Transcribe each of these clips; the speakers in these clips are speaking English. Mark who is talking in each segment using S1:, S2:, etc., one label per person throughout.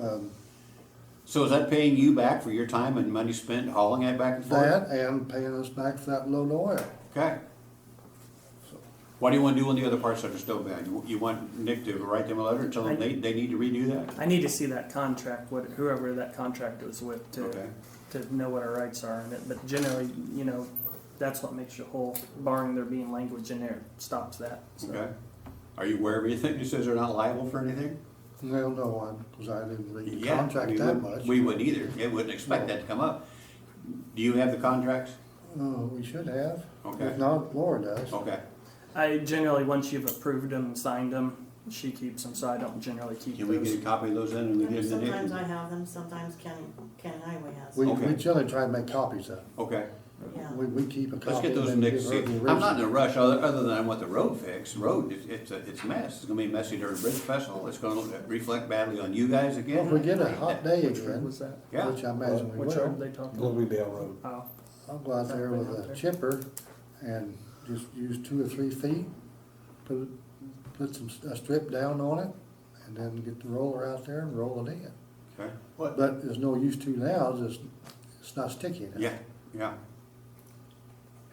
S1: Um,
S2: So is that paying you back for your time and money spent hauling that back and forth?
S1: That and paying us back for that load of oil.
S2: Okay. What do you want to do on the other parts that are still bad? You- You want Nick to write them a letter and tell them they, they need to redo that?
S3: I need to see that contract, what, whoever that contract was with to,
S2: Okay.
S3: to know what our rights are in it, but generally, you know, that's what makes you whole, barring there being language in there, stops that,
S2: Okay.
S3: so.
S2: Are you aware of anything that says they're not liable for anything?
S1: Well, no one, because I didn't read the
S2: Yeah,
S1: contract
S2: we
S1: that
S2: wouldn't-
S1: much.
S2: We wouldn't either. It wouldn't expect that to come up. Do you have the contracts?
S1: Oh, we should have.
S2: Okay. Oh,
S1: If not, Laura does.
S2: Okay.
S3: I generally, once you've approved them and signed them, she keeps them, so I don't generally keep
S2: Can we
S3: those.
S2: get a copy of those in and we give them to
S4: Sometimes I
S2: Nick?
S4: have them, sometimes County, County Highway has
S1: We,
S4: them,
S1: we
S2: Okay.
S1: generally try and make copies of them.
S2: Okay.
S4: yeah.
S1: We, we keep a
S2: Let's
S1: copy.
S2: get
S1: and
S2: those
S1: then
S2: Nick,
S1: give her
S2: see,
S1: the
S2: I'm not
S1: original.
S2: in a rush, other, other than I want the road fixed, road, it's, it's, a- it's a mess, it's gonna be messy during Bridge Festival, it's gonna look- reflect badly on you guys
S1: Well, If we
S2: again.
S1: get a hot day
S3: Which road
S1: again,
S3: was that?
S2: Yeah,
S1: which I imagine we
S3: Which road
S1: will,
S3: they talking about?
S5: Globally Bell Road.
S3: Oh,
S1: I'll go out there with a chipper and just use two or three feet, put, put some, a strip down on it, and then get the roller out there and roll it in.
S2: okay,
S1: But there's no use to now, it's, it's not sticky enough.
S2: yeah, yeah,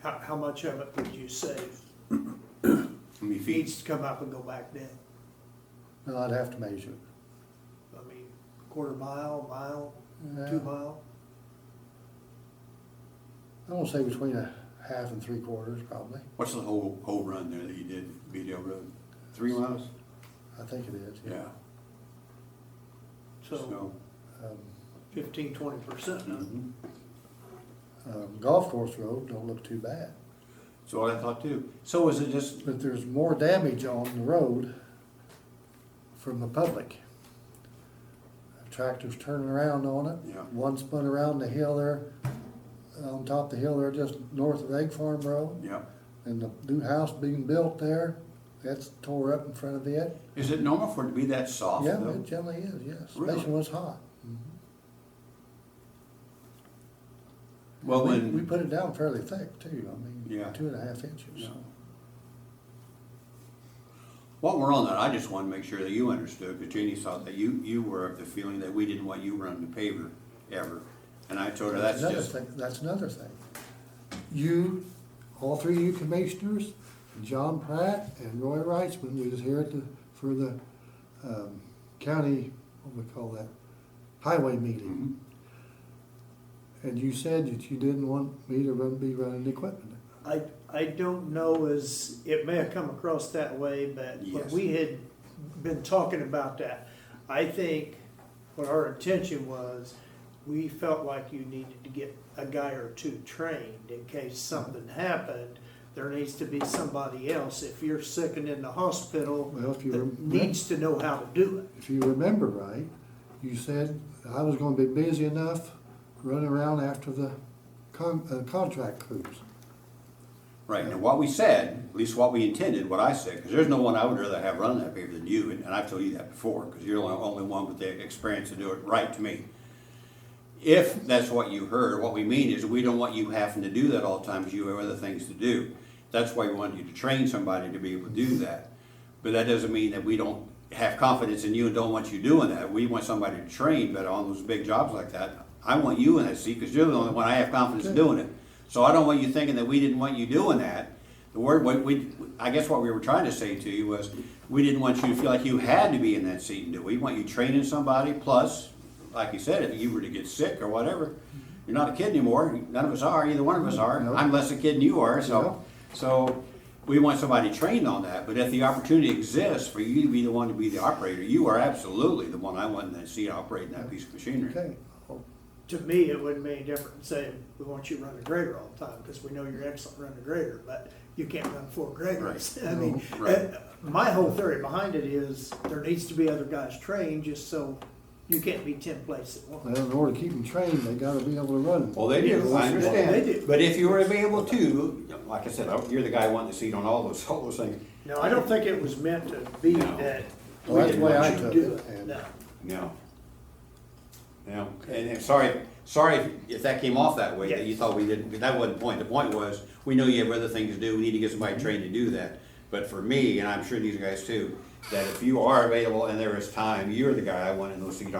S6: How, how much of it would you save?
S2: I mean,
S6: Needs
S2: feet,
S6: to come up and go back down.
S1: Well, I'd have to measure.
S6: I mean, quarter mile, mile,
S1: Yeah.
S6: two mile?
S1: I want to say between a half and three quarters, probably.
S2: what's the whole, whole run there that you did, Beedale Road? Three miles?
S1: I think it is.
S2: Yeah,
S6: So
S2: so,
S1: Um,
S6: fifteen, twenty percent.
S2: mhm.
S1: um, golf course road don't look too bad,
S2: so what I thought too, so is it just,
S1: but there's more damage on the road from the public. Tractors turning around on it.
S2: Yeah.
S1: One spun around the hill there, on top of the hill there, just north of Egg Farm Road,
S2: yeah,
S1: and the new house being built there, that's tore up in front of it.
S2: is it normal for it to be that soft
S1: Yeah,
S2: though?
S1: it generally is, yes,
S2: Really?
S1: especially when it's hot.
S2: Well,
S1: We-
S2: when-
S1: We put it down fairly thick too, I
S2: Yeah.
S1: mean, two and a half inches, so.
S2: While we're on that, I just want to make sure that you understood, because Jeannie thought that you, you were of the feeling that we didn't want you running the paver ever. And I told her that's
S1: another
S2: just,
S1: thing- That's another thing. You, all three of you commissioners, John Pratt and Roy Reitzman, we was here at the, for the, um, county, what do we call that? Highway
S2: Mhm.
S1: meeting.
S2: Mm-hmm.
S1: And you said that you didn't want me to run, be running the equipment.
S6: I, I don't know as, it may have come across that way, but when
S2: Yes.
S6: we had been talking about that, I think what our intention was, we felt like you needed to get a guy or two trained in case something happened. There needs to be somebody else. If you're sick and in the hospital,
S1: Well, if you
S2: Uh,
S6: that
S1: remember.
S6: needs to know how to do it.
S1: if you remember right, you said I was gonna be busy enough running around after the con- uh, contract crews.
S2: right, and what we said, at least what we intended, what I said, because there's no one I would rather have run that paver than you, and and I've told you that before, because you're the only one with the experience to do it right to me. If that's what you heard, what we mean is we don't want you having to do that all the time because you have other things to do. That's why we wanted you to train somebody to be able to do that. But that doesn't mean that we don't have confidence in you and don't want you doing that. We want somebody to train, but on those big jobs like that, I want you in that seat because you're the only one I have confidence in doing it. So I don't want you thinking that we didn't want you doing that. The word, what we, I guess what we were trying to say to you was, we didn't want you to feel like you had to be in that seat and do it. We want you training somebody plus like you said, if you were to get sick or whatever, you're not a kid anymore. None of us are. Either one of us are.
S1: No.
S2: I'm less a kid than you are. So,
S1: No.
S2: so we want somebody trained on that. But if the opportunity exists for you to be the one to be the operator, you are absolutely the one I want to see operating that piece of machinery.
S1: Okay,
S6: To me, it wouldn't make any difference saying, we want you to run a grader all the time, because we know you're excellent running a grader, but you can't run four graders. I mean,
S2: No, right.
S6: uh, my whole theory behind it is, there needs to be other guys trained, just so you can't be ten places at once.
S1: well, in order to keep them trained, they gotta be able to run.
S2: Well, they do. I
S6: Yes,
S2: understand.
S6: they do.
S2: But if you were available to, like I said, I- you're the guy wanting the seat on all those all those things.
S6: No, I don't think it was meant to be
S2: No.
S6: that
S1: Well, that's the way I
S6: you
S1: took
S6: do
S1: it,
S6: it,
S1: and
S6: no.
S2: No. No, and I'm sorry, sorry if that came off that way, that you thought we didn't, but that wasn't the point. The point was, we know you have other things to do, we need to get somebody trained to do that. But for me, and I'm sure these guys too, that if you are available and there is time, you're the guy I want in those seat